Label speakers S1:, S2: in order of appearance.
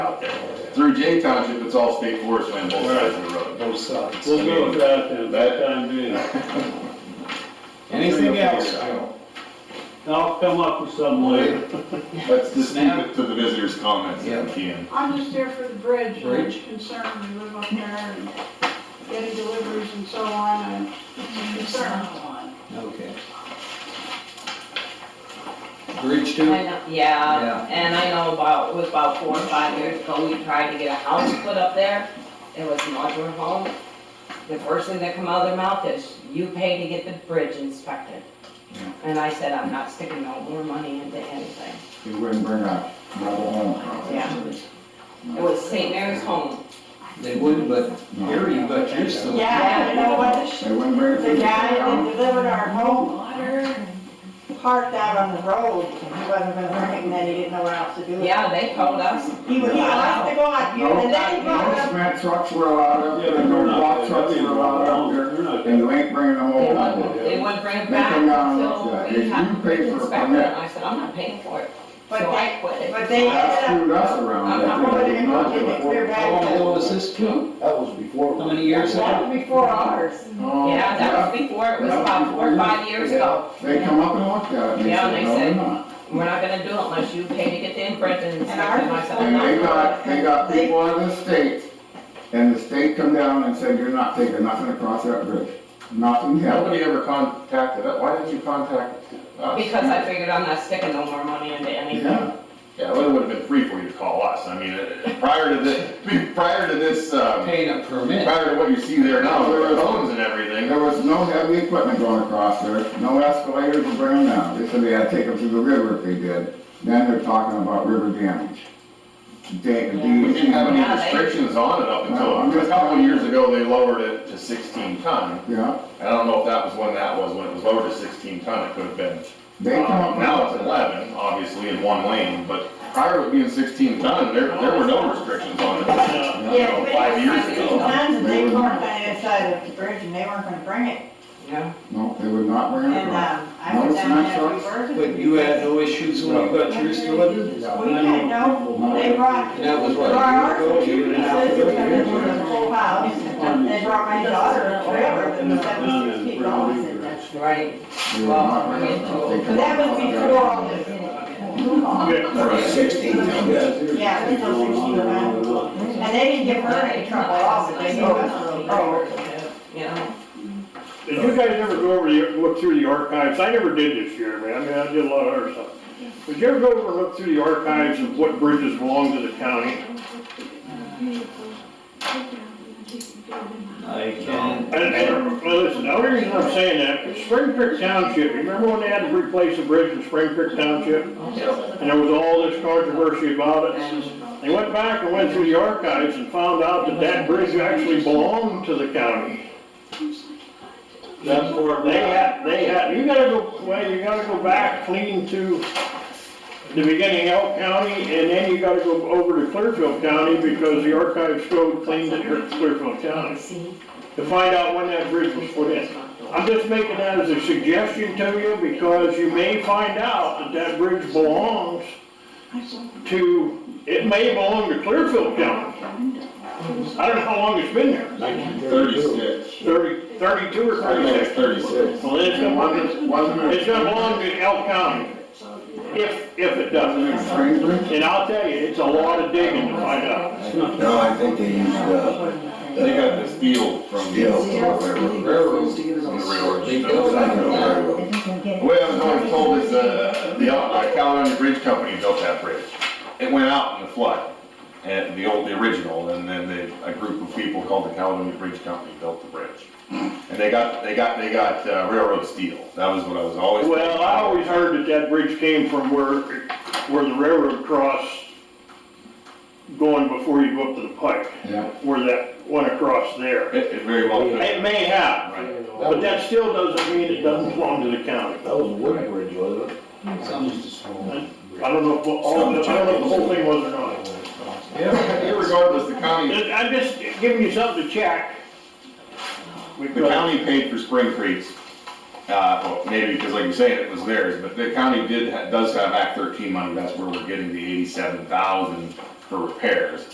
S1: through Jay Township, it's all state forest land, both sides of the road.
S2: both sides.
S3: We'll go with that then, that time being.
S2: Anything else?
S3: I'll come up with something later.
S1: Let's just keep it to the visitors' comments if we can.
S4: I'm just there for the bridge, I'm
S2: Bridge?
S4: concerned, we live up there and getting deliveries and so on, and it's a concern.
S2: Okay. Bridge
S5: I
S2: two?
S5: know,
S2: Yeah.
S5: yeah, and I know about, it was about four or five years ago, we tried to get a house put up there. It was a modular home. The first thing that come out of their mouth is, you pay to get the bridge inspected. And I said, I'm not sticking no more money into anything.
S6: You wouldn't bring a mobile home.
S5: Yeah. It was St. Mary's Home.
S2: They wouldn't, but
S6: No.
S2: Gary, but you're still.
S7: Yeah, you know what,
S6: They wouldn't bring it.
S7: the guy that delivered our home water parked out on the road, and he wasn't gonna bring it, and then he didn't know what else to do.
S5: Yeah, they told us.
S7: He was, he left to go on,
S6: No,
S7: and then he brought
S6: no
S7: up,
S6: cement trucks were allowed up
S3: Yeah,
S6: there,
S3: but
S6: no
S3: we're
S6: block
S3: not,
S6: trucks
S3: that's
S6: were allowed up there,
S3: we're not.
S6: and you ain't bringing a
S5: They
S6: whole
S5: wouldn't,
S6: lot.
S5: they wouldn't bring it
S6: They
S5: back
S6: come down and look
S5: until
S6: at it.
S5: we
S6: If
S5: had
S6: you
S5: to
S6: pay for a
S5: inspect it.
S6: permit-
S5: I said, I'm not paying for it.
S7: But
S5: So I
S7: they-
S5: quit.
S7: but they
S6: That
S7: ended
S6: screwed
S7: up,
S6: us around.
S5: I'm not
S7: gonna get
S6: Not
S7: it.
S6: doing
S7: They're
S2: How long ago was this too?
S8: That was before.
S2: How many years ago?
S7: that was before ours.
S6: Oh,
S5: Yeah, that was before, it was about four or five years ago.
S6: They come up and looked at it, and they
S5: Yeah, and they
S6: said, no,
S5: said-
S6: we're not.
S5: We're not gonna do it unless you pay to get the imprint and
S7: And
S5: inspect
S7: ours
S5: it myself.
S7: was
S6: And they got, they got
S7: They-
S6: people out of the state, and the state come down and said, you're not taking nothing across that bridge, nothing happened.
S1: Nobody ever contacted us, why didn't you contact us?
S5: Because I figured I'm not sticking no more money into anything.
S6: Yeah,
S1: Yeah, well, it would've been free for you to call us, I mean, uh, prior to this, prior to this, um,
S2: Paying a permit.
S1: prior to what you see there now, there were phones and everything.
S6: there was no heavy equipment going across there, no escalators to bring them down, they said they had to take them to the river if they did. Then they're talking about river damage. They, the.
S1: We didn't have any
S5: Yeah, they-
S1: restrictions on it up
S6: No, I'm
S1: until, a
S6: just-
S1: couple of years ago, they lowered it to sixteen ton.
S6: Yeah,
S1: I don't know if that was when that was, when it was lowered to sixteen ton, it could've been.
S6: they come
S1: Um,
S6: up.
S1: Now it's eleven, obviously, in one lane, but prior to it being sixteen ton, there, there were no restrictions on it.
S3: Yeah.
S6: Yeah.
S7: Yeah, but
S1: Five
S7: it
S1: years
S7: was sixteen
S1: ago.
S7: times, and they weren't on the side of the bridge, and they weren't gonna bring it,
S5: Yeah.
S6: No, they would not bring it
S7: and,
S6: across.
S7: um, I
S6: No,
S7: was
S6: it's
S7: down
S6: not
S7: there
S6: trucks.
S7: reversing.
S2: But you had no issues when you got yours delivered?
S7: We had no, they brought,
S2: And that was what, a year
S7: Our
S2: ago, a year and a half
S7: sisters
S2: ago?
S7: came in with a full house, they brought my daughter, whatever,
S3: And
S7: and
S3: that's
S7: that
S3: down
S7: was six
S3: in
S7: people on
S3: Brown
S7: us in
S3: River.
S7: that.
S5: Right.
S6: They would not bring it across. They
S7: But
S6: come
S7: that
S6: up
S7: was
S6: and look at
S7: before
S6: it.
S7: all this.
S8: Sixteen, yeah.
S7: Yeah, it was those six people around. And they didn't give her any trouble at all, but they gave us a little trouble.
S5: You know?
S3: Did you guys ever go over the, look through the archives? I never did this year, man. I mean, I did a lot of other stuff. Did you ever go over and look through the archives of what bridges belong to the county?
S2: I can.
S3: And, and, well, listen, the only reason I'm saying that, is Spring Creek Township, you remember when they had to replace a bridge in Spring Creek Township? And there was all this controversy about it.
S5: And
S3: They went back and went through the archives and found out that that bridge actually belonged to the county.
S8: That's for.
S3: They had, they had, you gotta go, well, you gotta go back clean to the beginning of Elk County, and then you gotta go over to Clearfield County, because the archives go clean to Clearfield County,
S5: see.
S3: to find out when that bridge was put in. I'm just making that as a suggestion to you, because you may find out that that bridge belongs to, it may belong to Clearfield County. I don't know how long it's been there,
S1: Thirty-six.
S3: thirty, thirty-two or
S1: I think it's
S3: thirty-six?
S1: thirty-six.
S3: Well, it's
S6: And
S3: gonna be-
S6: wasn't, wasn't it?
S3: It's gonna belong to Elk County, if, if it
S6: Wasn't it
S3: doesn't.
S6: Springbrook?
S3: And I'll tell you, it's a lot of digging to find out.
S8: No, I think they used, uh,
S1: They got the steel from.
S8: steel or whatever.
S2: Railroads to get it
S1: From
S2: on.
S1: the railroad.
S2: They
S8: It
S2: built
S8: was like a
S2: it.
S8: railroad.
S1: The way I was always told is, uh, the, uh, Caledonia Bridge Company built that bridge. It went out in the flood, and the old, the original, and then they, a group of people called the Caledonia Bridge Company built the bridge. And they got, they got, they got uh, railroad steel, that was what I was always. told.
S3: Well, I always heard that that bridge came from where, where the railroad crossed going before you go up to the pike,
S6: Yeah,
S3: where that went across there.
S1: It, it very well could.
S3: It may have,
S1: Right.
S3: but that still doesn't mean it doesn't belong to the county.
S8: That was a wood bridge, wasn't it?
S3: I don't know if, all the- I don't know if the whole thing was or not.
S1: Irregardless, the county,
S3: I'm just giving you something to check.
S1: the county paid for Spring Creek's, uh, well, maybe because like you say, it was theirs, but the county did, ha- does have Act thirteen money, that's where we're getting the eighty-seven thousand for repairs.